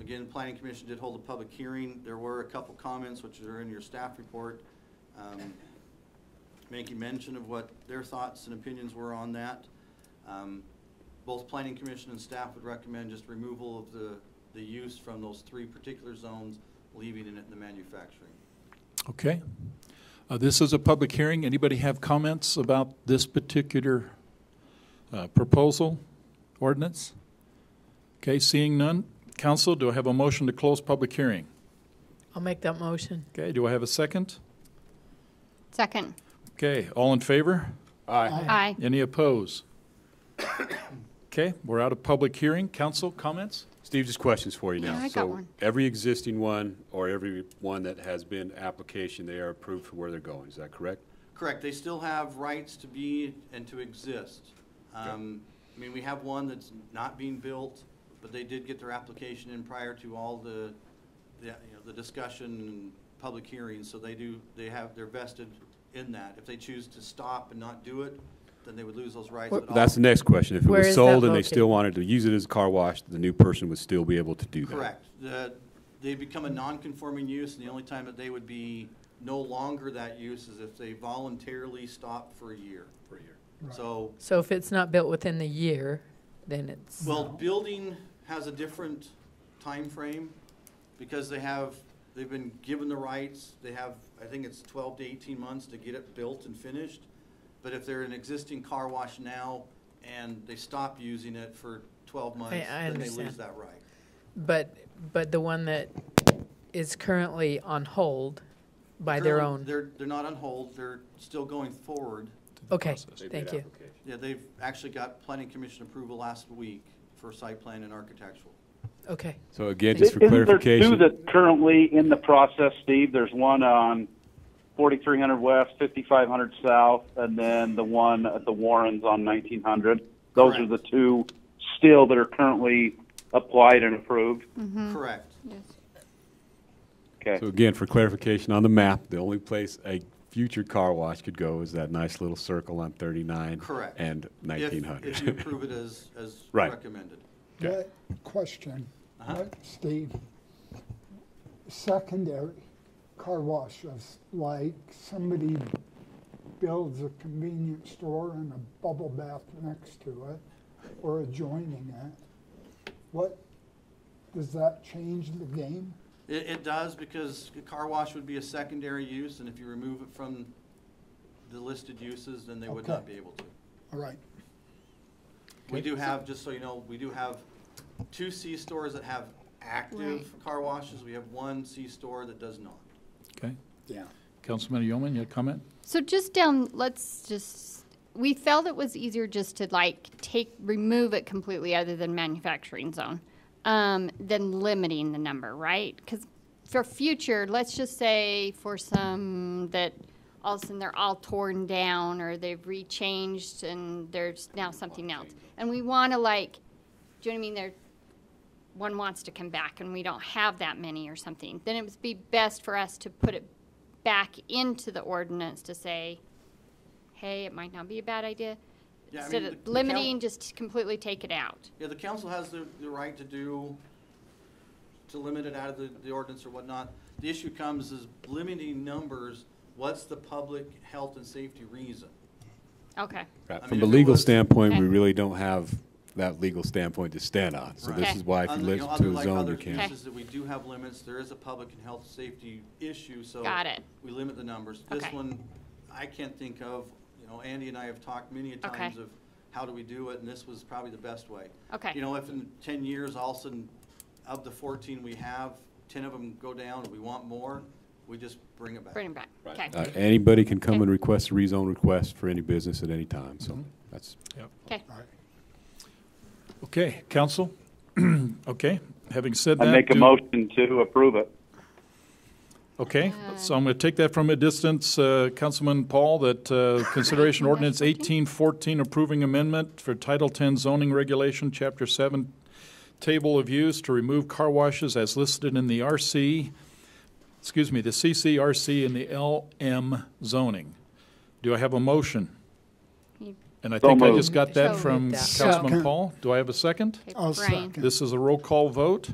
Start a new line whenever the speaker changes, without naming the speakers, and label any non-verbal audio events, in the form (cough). Again, Planning Commission did hold a public hearing. There were a couple comments, which are in your staff report, um, making mention of what their thoughts and opinions were on that. Um, Both Planning Commission and staff would recommend just removal of the, the use from those three particular zones, leaving it in the manufacturing.
Okay. Uh, This is a public hearing. Anybody have comments about this particular uh, proposal, ordinance? Okay, seeing none. Council, do I have a motion to close public hearing?
I'll make that motion.
Okay, do I have a second?
Second.
Okay, all in favor?
Aye.
Any opposed? (coughs) Okay, we're out of public hearing. Council, comments?
Steve, just questions for you now.
Yeah, I got one.
So every existing one or every one that has been application, they are approved for where they're going. Is that correct?
Correct, they still have rights to be and to exist. Um, I mean, we have one that's not being built, but they did get their application in prior to all the, the, you know, the discussion and public hearings, so they do, they have, they're vested in that. If they choose to stop and not do it, then they would lose those rights. but all-
That's the next question. If it
Where
was
is that
sold and they
located?
still wanted to use it as a car wash, the new person would still be able to do that.
Correct. The, they become a non-conforming use, and the only time that they would be no longer that use is if they voluntarily stop for a year. For a year. So
So if it's not built within the year, then it's,
Well, building has a different time frame because they have, they've been given the rights, they have, I think it's twelve to eighteen months to get it built and finished. But if they're an existing car wash now and they stop using it for twelve months,
I
then they lose
understand.
that right.
but, but the one that is currently on hold by their
Currently,
own.
They're, they're not on hold, they're still going forward.
Okay,
They
thank
did
you.
application.
Yeah, they've actually got planning commission approval last week for site plan and architectural.
Okay.
So again, just
Is-
for
Isn't
clarification,
there two that currently in the process, Steve? There's one on 4300 West, 5500 South, and then the one at the Warrens on 1900. Those are
Correct.
the two still that are currently applied and approved.
Mm-hmm.
Correct.
Okay.
so again, for clarification on the map, the only place a future car wash could go is that nice little circle on 39
Correct.
and
If-
1900.
If you
(laughs)
approve it as, as
Right.
recommended.
Okay.
What, question,
Uh-huh.
what, Steve? Secondary car washes, like somebody builds a convenience store and a bubble bath next to it or adjoining it. What, does that change the game?
It, it does, because a car wash would be a secondary use, and if you remove it from the listed uses, then they would not
Okay.
be able to.
All right,
We do have, just so you know, we do have two C stores that have active car washes, we have one C store that does not.
Okay.
yeah.
Councilman Yeoman, you have a comment?
So just down, let's just, we felt it was easier just to like take, remove it completely other than manufacturing zone, um, than limiting the number, right? Because for future, let's just say for some that all of a sudden they're all torn down or they've rechanged and there's now something else. And we want to like, do you know what I mean? They're one wants to come back and we don't have that many or something, then it would be best for us to put it back into the ordinance to say, hey, it might not be a bad idea.
Yeah, I
Instead
mean,
of
the- the count-
limiting, just completely take it out.
Yeah, the council has the, the right to do, to limit it out of the, the ordinance or whatnot. The issue comes is limiting numbers, what's the public health and safety reason?
Okay,
I
Right.
mean,
From
if
a
it
legal
was-
standpoint, we
Okay.
really don't have that legal standpoint to stand on. So this
Right.
is why if you
Other- know,
live
other-
to a
like
zone,
other
you can't.
Okay.
uses that we do have limits, there is a public and health safety issue, so.
Got it.
We limit the numbers. This
Okay.
one, I can't think of, you know, Andy and I have talked many a
Okay.
times of how do we do it, and this was probably the best way.
Okay.
You know, if in ten years, all of a sudden, of the fourteen we have, ten of them go down, and we want more, we just bring it back.
bring it back. Okay,
Uh, Anybody can come
Okay.
and request a rezone request for any business at any time,
Mm-hmm.
so that's,
okay.
Okay, council? (coughs) Okay, having said that.
I make a
do-
motion to approve it.
Okay, so I'm going to take that from a distance, uh, Councilman Paul, that uh, consideration
(laughs)
ordinance 1814 approving amendment for Title 10 zoning regulation, Chapter 7, table of use to remove car washes as listed in the RC, excuse me, the CCRC and the LM zoning. Do I have a motion? And I
So
think I
moved.
just got that
So
from
moved.
Councilman
Second.
Paul. Do I have a second?
Okay,
I'll
Brian.
second.
This is a roll call vote.